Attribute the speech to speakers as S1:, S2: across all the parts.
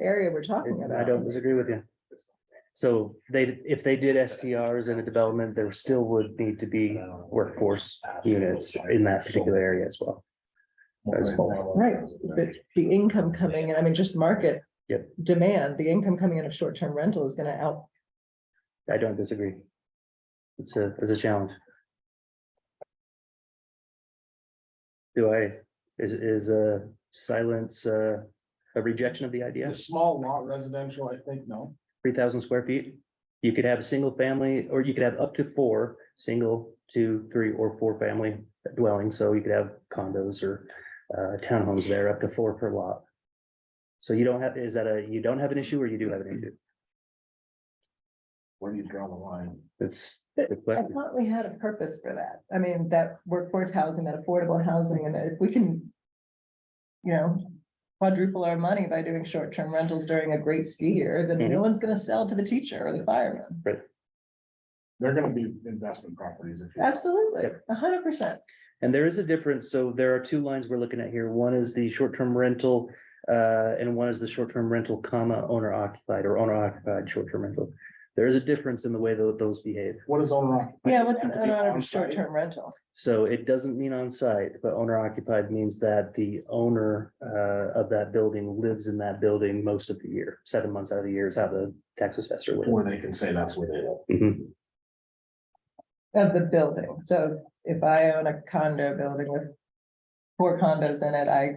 S1: area we're talking
S2: I
S1: about.
S2: don't disagree with you. So they, if they did STRs in a development, there still would need to be workforce units in that particular area as well. As well.
S1: Right, but the income coming in, I mean, just market.
S2: Yep.
S1: Demand, the income coming in of short-term rental is gonna out,
S2: I don't disagree. It's a, it's a challenge. Do I, is, is a silence, uh, a rejection of the idea?
S3: The small lot residential, I think, no.
S2: three thousand square feet. You could have a single family, or you could have up to four, single, two, three, or four family dwellings, so you could have condos or uh, townhomes there, up to four per lot. So you don't have, is that a, you don't have an issue or you do have an issue?
S3: Where do you draw the line?
S2: That's.
S1: But uh,
S2: good
S1: I
S2: question.
S1: thought we had a purpose for that. I mean, that workforce housing, that affordable housing, and if we can. You know, quadruple our money by doing short-term rentals during a great ski year, then no one's gonna sell to the teacher or the fireman.
S3: They're gonna be investment properties. if you-
S1: Absolutely, a hundred percent.
S2: And there is a difference, so there are two lines we're looking at here. One is the short-term rental, uh, and one is the short-term rental comma owner occupied or owner occupied short-term rental. There is a difference in the way tho- those behave.
S3: What is owner occupied?
S1: Yeah, what's
S3: Have
S1: an
S3: to be
S1: owner of a
S3: on-site?
S1: short-term rental?
S2: So it doesn't mean on site, but owner occupied means that the owner uh of that building lives in that building most of the year, seven months out of the year is how the tax assessor would.
S3: Or they can say that's where they live.
S1: Mm-hmm.
S2: Mhm.
S1: Of the building, so if I own a condo building with. Four condos in it, I,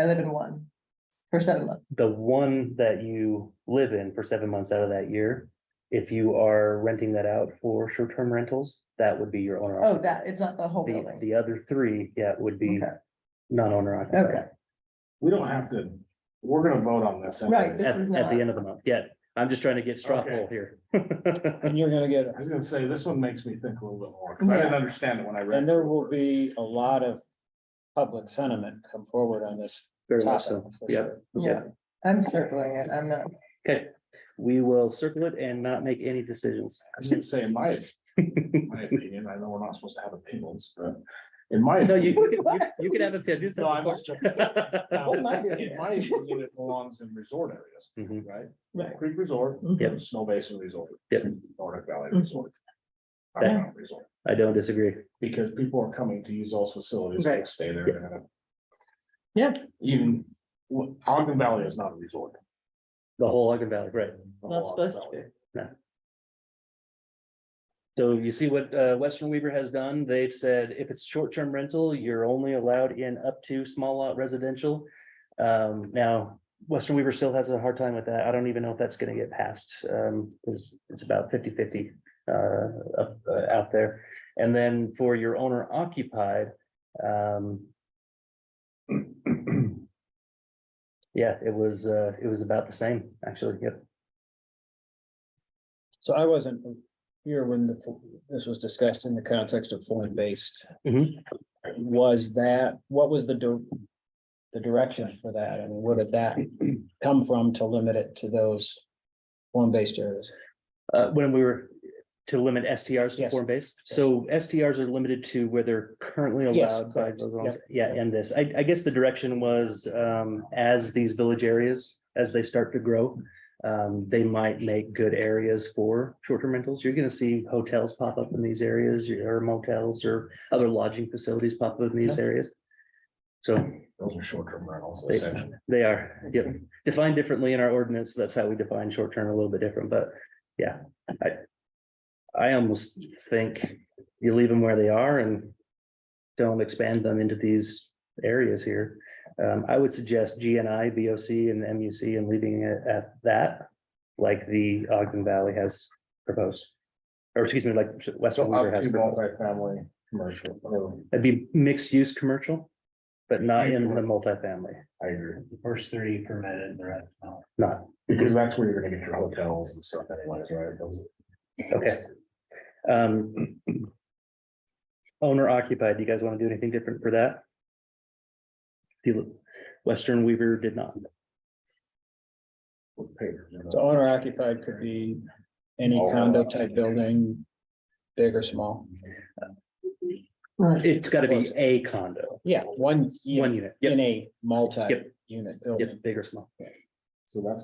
S1: I live in one. For seven months,
S2: The one that you live in for seven months out of that year, if you are renting that out for short term rentals, that would be your owner.
S1: oh, that, it's not the whole
S2: occupied. The
S1: building,
S2: the other three, yeah, would be
S1: Okay.
S2: non owner occupied.
S1: okay,
S3: We don't have to, we're gonna vote on this.
S1: Right, this
S2: At
S1: is
S2: at
S1: not-
S2: the end of the month, yeah, I'm just trying to get straw
S3: Okay.
S2: poll here.
S4: And you're gonna get,
S3: I was gonna say, this one makes me think a little bit more, because I didn't understand it when I read.
S4: and there will be a lot of public sentiment come forward on this
S2: Very
S4: topic.
S2: much so,
S4: for
S2: yeah.
S4: sure.
S1: yeah, I'm circling it, I'm not.
S2: Okay, we will circle it and not make any decisions.
S3: I was gonna say, in my, my opinion, I know we're not supposed to have opinions, but in my.
S2: No, you, you, can- you- you can have a opinion.
S3: No, I must check. Now,
S1: Oh, my goodness.
S3: In my opinion, it belongs in resort areas,
S2: Mhm.
S3: right?
S1: Right.
S3: Creek Resort.
S2: Yep.
S3: Snow Basin Resort.
S2: Yep.
S3: Nordic Valley
S1: Mhm.
S3: Resort. Iron Mountain Resort,
S2: I don't disagree.
S3: because people are coming to use those facilities, they
S1: Right.
S3: stay there. and, uh,
S1: Yeah.
S3: Even, well, Ogden Valley is not a resort.
S2: The whole Ogden Valley, right?
S3: the
S1: Not
S3: whole Ogden
S1: supposed to
S3: Valley.
S1: be.
S2: So you see what uh Western Weaver has done? They've said if it's short-term rental, you're only allowed in up to small lot residential. Um, now, Western Weaver still has a hard time with that. I don't even know if that's gonna get passed, um, because it's about 50-50 uh, up, uh, out there. And then for your owner occupied, um. Yeah, it was, uh, it was about the same, actually, yep.
S4: So I wasn't here when the, this was discussed in the context of foreign based.
S2: Mhm.
S4: Was that, what was the dir- the direction for that? I mean, where did that come from to limit it to those foreign based areas?
S2: Uh, when we were to limit STRs to
S4: Yes.
S2: form based, so STRs are limited to where they're currently
S4: Yes,
S2: allowed by
S4: correct.
S2: those laws.
S4: Yep.
S2: Yeah, and this, I, I guess the direction was, um, as these village areas, as they start to grow. Um, they might make good areas for short-term rentals. You're gonna see hotels pop up in these areas, or motels or other lodging facilities pop up in these areas. So
S3: Those are short-term rentals
S2: They-
S3: essentially.
S2: they are, yep, defined differently in our ordinance. That's how we define short term, a little bit different, but yeah, I. I almost think you leave them where they are and don't expand them into these areas here. Um, I would suggest GNI, VOC and MUC and leaving it at that, like the Ogden Valley has proposed. Or excuse me, like Western
S3: So uh,
S2: Weaver
S3: up
S2: has
S3: to
S2: proposed.
S3: multifamily, commercial, whatever.
S2: It'd be mixed use commercial, but not in the multifamily,
S3: I agree,
S5: First three permitted, the rest not.
S2: not.
S3: because that's where you're gonna get your hotels and stuff anyways, right? Those-
S2: Okay. Um. Owner occupied, you guys want to do anything different for that? If you look, Western Weaver did not.
S3: with papers, you know.
S4: So owner occupied could be any condo type building, big or small.
S1: Right.
S2: It's got to be a condo,
S4: Yeah, one,
S2: one
S4: unit
S2: unit. Yep,
S4: in a multi-unit building.
S2: yep, big or small.
S3: So that's